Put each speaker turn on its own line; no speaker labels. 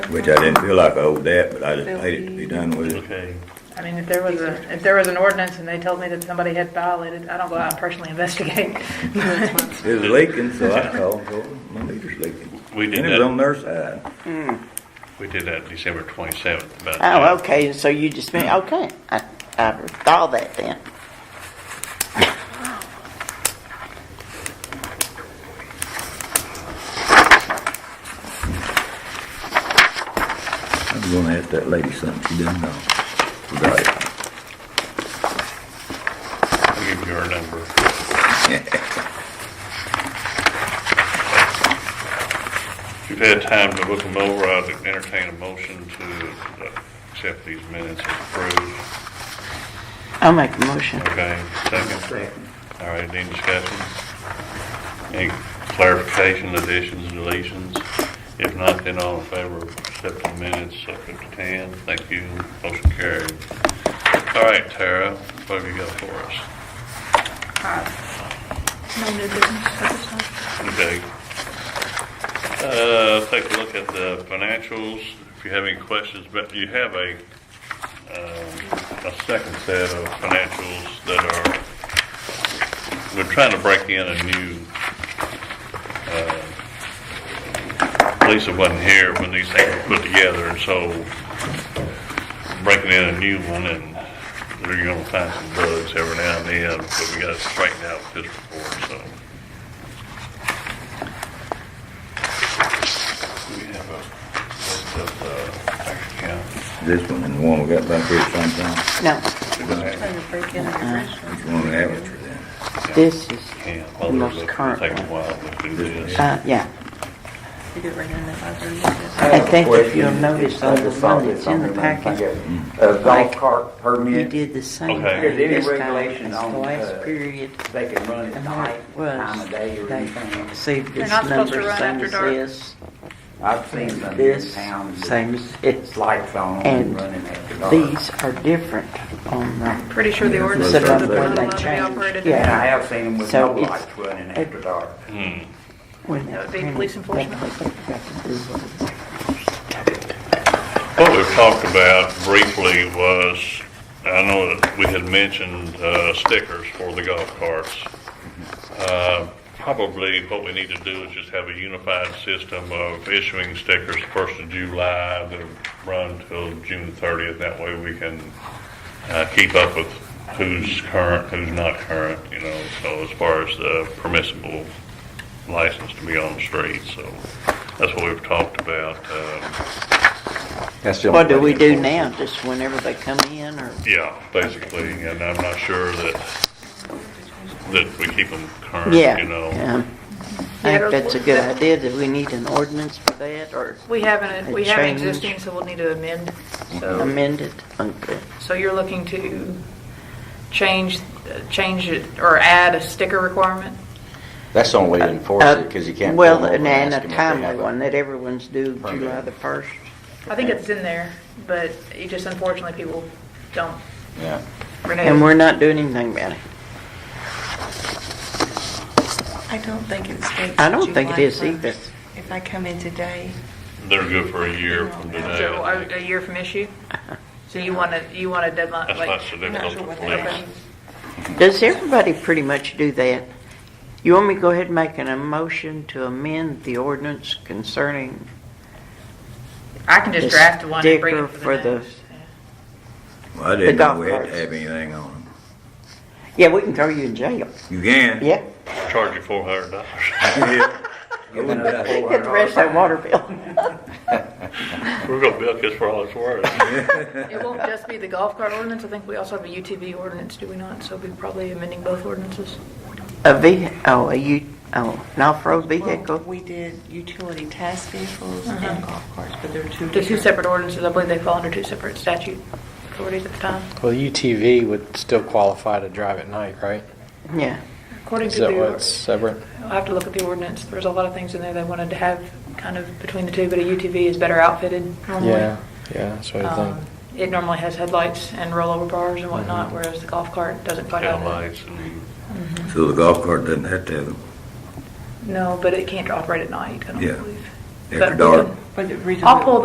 which I didn't feel like I owed that, but I just paid it to be done with it.
Okay.
I mean, if there was a, if there was an ordinance and they told me that somebody had violated, I don't go out and personally investigate.
It was leaking, so I called, and told them, my meter's leaking.
We did
And it was
that.
on their side.
We did that December twenty-seventh, but.
Oh, okay, so you just mean, okay, I, I saw that then.
I'm gonna ask that lady something she didn't know. Forgot it.
I'll give you our number. If you've had time to look them over, I'd entertain a motion to uh, accept these minutes as approved.
I'll make a motion.
Okay, second. All right, any discussion? Any clarification, additions, deletions? If not, then all in favor of accepting minutes, subject to 10. Thank you, motion carried. All right, Tara, what have you got for us? Okay. Uh, Take a look at the financials. If you have any questions, but you have a, um, a second set of financials that are, we're trying to break in a new, uh, Lisa wasn't here when these things were put together, and so breaking in a new one, and we're gonna find some bugs every now and then, but we gotta straighten out this report, so. We have a list of uh, bank accounts.
This one and the one we got back here sometime.
No,
Which one we have it for then?
this is
Yeah, well,
the
there's
most
a-
current
Take a
one.
while to do this.
Uh, yeah. I think if you'll notice on the one that's in the packet, Mm-hmm.
A
like,
golf cart
you
permit,
did the same
Okay.
thing
Is there any
this time
regulation
as the
on,
last
uh,
period.
they can run it
And what
night,
it
time
was,
of day or
they
anything.
received
They're
this
not supposed to
number,
run
same
after
as
dark.
this,
I've seen some in
this,
town, that
same as this.
it's lights on
And
and running after dark.
These are different on the,
Pretty sure the ordinance
that's
says
what
that
I'm
they're not
saying.
allowed to
Change,
be operated.
yeah.
And I have seen them with
So
no
it's-
lights running after dark.
when
That would be
printed,
police
they
enforcement.
put it back in this one.
What we've talked about briefly was, I know that we had mentioned uh, stickers for the golf carts. Uh, Probably what we need to do is just have a unified system of issuing stickers first of July that run till June thirtieth. That way we can uh, keep up with who's current, who's not current, you know, so as far as the permissible license to be on the street, so that's what we've talked about. Um,
What do we do now, just whenever they come in, or,
Yeah, basically, and I'm not sure that, that we keep them current,
yeah.
you know.
um, I think that's a good idea, that we need an ordinance for that, or
We have an,
They
we have an
change. Mm-hmm.
existing, so we'll need to amend. So,
amend it,
Uh,
okay.
so you're looking to change, change it or add a sticker requirement?
That's the only way to enforce it, because you can't. pull
Well,
them over
and and
ask
a
them if they have
timely
a-
one, that everyone's due
permit.
July the first.
I think it's in there, but you just unfortunately people don't
Yeah.
renew.
And we're not doing anything about it.
I don't think it states.
I don't think it
July
is either.
1st. If I come in today,
They're good for a year from today.
So
I
a, a
think.
year from issue? So you want to, you want a deadline,
That's
like,
not so
I'm not
difficult
sure
for
what that
police.
means.
Does everybody pretty much do that? You want me to go ahead and make an motion to amend the ordinance concerning,
I can just
The
draft one and bring
sticker
it for
for the-
the next.
Well, I didn't know
golf
we had to
carts.
have anything on them.
yeah, we can throw you in jail,
You can?
yeah?
Charge you four hundred dollars.
Yeah.
Get the rest of that water bill.
We're gonna bill this for all it's worth.
It won't just be the golf cart ordinance, I think we also have a UTV ordinance, do we not? So we're probably amending both ordinances.
A ve, oh, a u, oh, an off-road
well,
vehicle? Uh-huh.
we did utility task vehicles and golf carts, but they're two.
They're two
different-
separate ordinances, I believe they fall under two separate statute authorities at the time.
Well, UTV would still qualify to drive at night, right?
Yeah,
According
Is
to
that
the,
what's
or-
separate?
I'll have to look at the ordinance, there's a lot of things in there they wanted to have kind of between the two, but a UTV is better outfitted normally.
Yeah, yeah, that's what I
Um,
think. Mhm.
It normally has headlights and rollover bars and whatnot, whereas the golf cart doesn't quite have that.
Headlights and
So the golf cart doesn't have to have them
No, but it can't operate at night, I don't
Yeah.
believe.
after
But-
dark.
But the reason
I'll
that-
pull